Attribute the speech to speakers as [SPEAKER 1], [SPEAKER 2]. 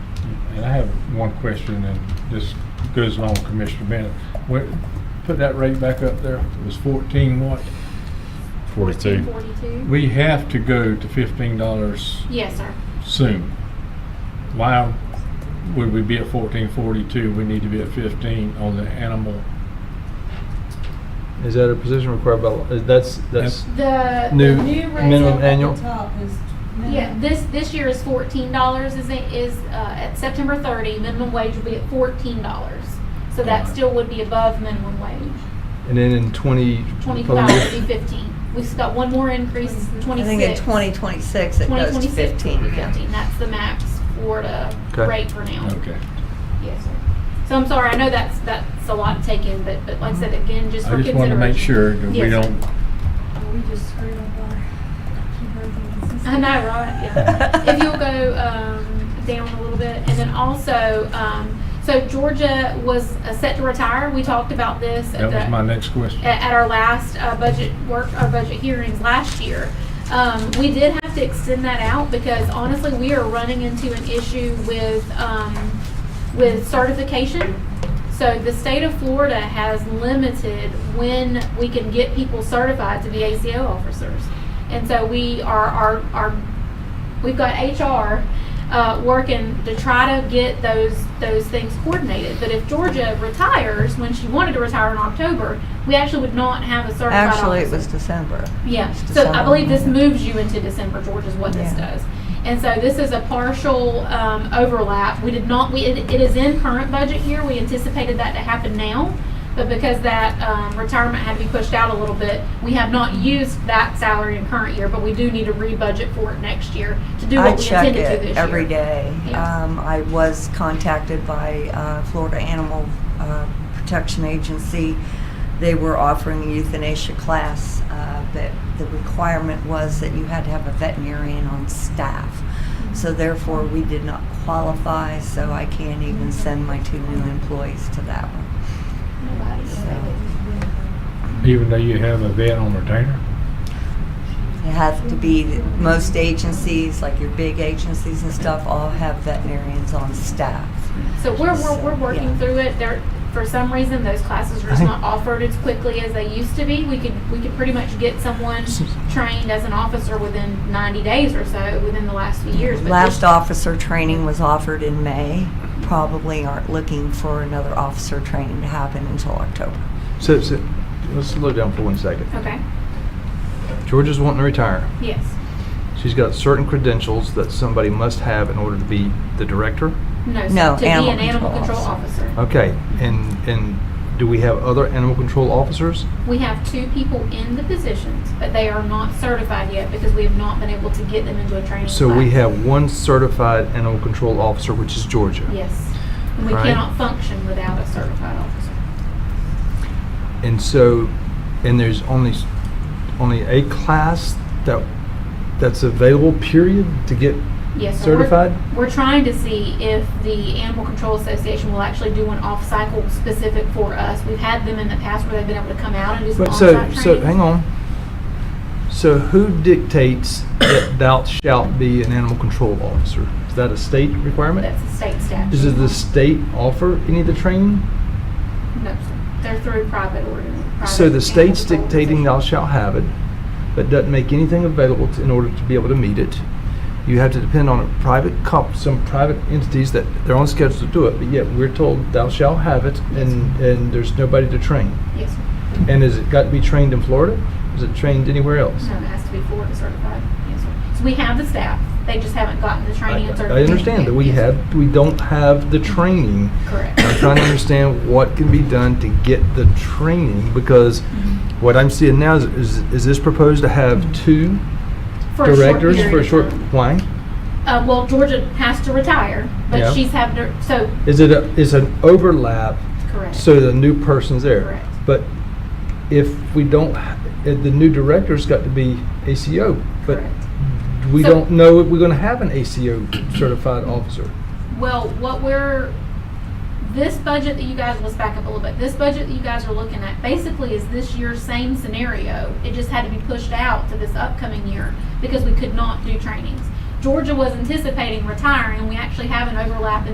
[SPEAKER 1] And I have one question, and this goes along with Commissioner Bennett. What, put that rate back up there, it was fourteen what?
[SPEAKER 2] 42.
[SPEAKER 3] 42?
[SPEAKER 1] We have to go to fifteen dollars
[SPEAKER 3] Yes, sir.
[SPEAKER 1] soon. Why would we be at fourteen forty-two? We need to be at fifteen on the animal.
[SPEAKER 4] Is that a position required by, law? Uh, that's, that's,
[SPEAKER 3] The the
[SPEAKER 4] New-
[SPEAKER 3] new
[SPEAKER 4] minimum
[SPEAKER 3] rates
[SPEAKER 5] Up at the
[SPEAKER 4] annual?
[SPEAKER 5] top is minimum.
[SPEAKER 3] Yeah, this, this year is fourteen dollars, is, it- is, uh, at September thirty, minimum wage will be at fourteen dollars. So that
[SPEAKER 1] Alright.
[SPEAKER 3] still would be above minimum wage.
[SPEAKER 4] and then in 20.
[SPEAKER 3] Twenty-five would be fifteen. We've got one more increase,
[SPEAKER 6] I think in
[SPEAKER 3] twenty-six.
[SPEAKER 6] 2026, it goes to
[SPEAKER 3] 2026,
[SPEAKER 6] 15,
[SPEAKER 3] it'll be
[SPEAKER 6] yeah.
[SPEAKER 3] 15. That's the max Florida
[SPEAKER 4] Okay.
[SPEAKER 3] rate for now. Yes, sir. So I'm sorry, I know that's, that's a lot taken, but, but like I said, again, just for
[SPEAKER 1] I just
[SPEAKER 3] consideration.
[SPEAKER 1] want to make sure that we
[SPEAKER 3] Yes, sir.
[SPEAKER 1] don't,
[SPEAKER 5] Well, We just screwed up our, keep everything consistent.
[SPEAKER 3] I know, right? Yeah. if you'll go um, down a little bit, and then also, um, so Georgia was uh, set to retire. We talked about this.
[SPEAKER 1] that was my next question.
[SPEAKER 3] at, at our last uh, budget work, our budget hearings last year. Um, we did have to extend that out because honestly, we are running into an issue with, um, with certification. So the state of Florida has limited when we can get people certified to be ACO officers. And so we are, are, are we've got HR uh, working to try to get those those things coordinated. But if Georgia retires when she wanted to retire in October, we actually would not have a certified
[SPEAKER 6] Actually, it
[SPEAKER 3] officer.
[SPEAKER 6] was December.
[SPEAKER 3] Yeah,
[SPEAKER 6] It's
[SPEAKER 3] so I believe this
[SPEAKER 6] December.
[SPEAKER 3] moves you into December, George, is what this
[SPEAKER 6] Yeah.
[SPEAKER 3] does. And so this is a partial um, overlap. We did not, we, it it is in current budget year. We anticipated that to happen now. But because that um, retirement had to be pushed out a little bit, we have not used that salary in current year, but we do need to re-budget for it next year to do
[SPEAKER 6] I
[SPEAKER 3] what we
[SPEAKER 6] check
[SPEAKER 3] intended to this
[SPEAKER 6] it
[SPEAKER 3] year.
[SPEAKER 6] every day.
[SPEAKER 3] Yeah.
[SPEAKER 6] Um, I was contacted by uh, Florida Animal uh, Protection Agency. They were offering a euthanasia class, uh, but the requirement was that you had to have a veterinarian on staff. So therefore, we did not qualify, so I can't even send my two new employees to that one.
[SPEAKER 3] Nobody.
[SPEAKER 6] So
[SPEAKER 1] Even though you have a vet on retainer?
[SPEAKER 6] It has to be, most agencies, like your big agencies and stuff, all have veterinarians on staff.
[SPEAKER 3] So we're, we're, we're working
[SPEAKER 6] Yeah.
[SPEAKER 3] through it. There, for some reason, those classes are just not offered as quickly as they used to be. We could, we could pretty much get someone trained as an officer within ninety days or so, within the last few years. but
[SPEAKER 6] Last
[SPEAKER 3] just-
[SPEAKER 6] officer training was offered in May. Probably aren't looking for another officer training to happen until October.
[SPEAKER 4] So, so, let's slow down for one second.
[SPEAKER 3] Okay,
[SPEAKER 4] Georgia's wanting to retire.
[SPEAKER 3] yes.
[SPEAKER 4] She's got certain credentials that somebody must have in order to be the director.
[SPEAKER 3] No,
[SPEAKER 6] No,
[SPEAKER 3] so to be
[SPEAKER 6] animal
[SPEAKER 3] an animal
[SPEAKER 6] control
[SPEAKER 3] control officer.
[SPEAKER 4] Okay, and, and do we have other animal control officers?
[SPEAKER 3] We have two people in the positions, but they are not certified yet because we have not been able to get them into a training class.
[SPEAKER 4] So we have one certified animal control officer, which is Georgia.
[SPEAKER 3] Yes. And we
[SPEAKER 4] Right.
[SPEAKER 3] cannot function without a certified officer.
[SPEAKER 4] And so, and there's only, only a class that, that's available, period, to get,
[SPEAKER 3] Yes, so we're-
[SPEAKER 4] Certified?
[SPEAKER 3] We're trying to see if the Animal Control Association will actually do an off-cycle specific for us. We've had them in the past where they've been able to come out and do some
[SPEAKER 4] but
[SPEAKER 3] on-site
[SPEAKER 4] so,
[SPEAKER 3] training.
[SPEAKER 4] so, hang on. So who dictates that thou shalt be an animal control officer? Is that a state requirement?
[SPEAKER 3] That's a state statute.
[SPEAKER 4] Does the state offer any of the training?
[SPEAKER 3] No, sir. They're through private organ.
[SPEAKER 4] So the state's dictating thou shalt have it, but doesn't make anything available to- in order to be able to meet it. You have to depend on a private comp, some private entities that they're on schedule to do it, but yet we're told thou shalt have it and, and there's nobody to train.
[SPEAKER 3] Yes, sir.
[SPEAKER 4] And has it got to be trained in Florida? Is it trained anywhere else?
[SPEAKER 3] No, it has to be Florida certified. Yes, sir. So we have the staff. They just haven't gotten the
[SPEAKER 4] I
[SPEAKER 3] training and
[SPEAKER 4] I understand that we
[SPEAKER 3] Yes, sir.
[SPEAKER 4] have, we don't have the training.
[SPEAKER 3] Correct.
[SPEAKER 4] I'm trying to understand what can be done to get the training because
[SPEAKER 3] Mm-hmm.
[SPEAKER 4] what I'm seeing now is, is, is this proposed to have two
[SPEAKER 3] For a short
[SPEAKER 4] directors for
[SPEAKER 3] period
[SPEAKER 4] a
[SPEAKER 3] of
[SPEAKER 4] short,
[SPEAKER 3] time.
[SPEAKER 4] why?
[SPEAKER 3] Uh, well, Georgia has to retire,
[SPEAKER 4] Yeah.
[SPEAKER 3] but she's having to, so,
[SPEAKER 4] Is it, a- is an overlap
[SPEAKER 3] correct.
[SPEAKER 4] so the new person's there?
[SPEAKER 3] Correct.
[SPEAKER 4] But if we don't, h- if the new director's got to be ACO, but
[SPEAKER 3] Correct.
[SPEAKER 4] we
[SPEAKER 3] So-
[SPEAKER 4] don't know if we're gonna have an ACO certified officer.
[SPEAKER 3] Well, what we're, this budget that you guys, let's back up a little bit. This budget that you guys are looking at basically is this year's same scenario. It just had to be pushed out to this upcoming year because we could not do trainings. Georgia was anticipating retiring and we actually have an overlap in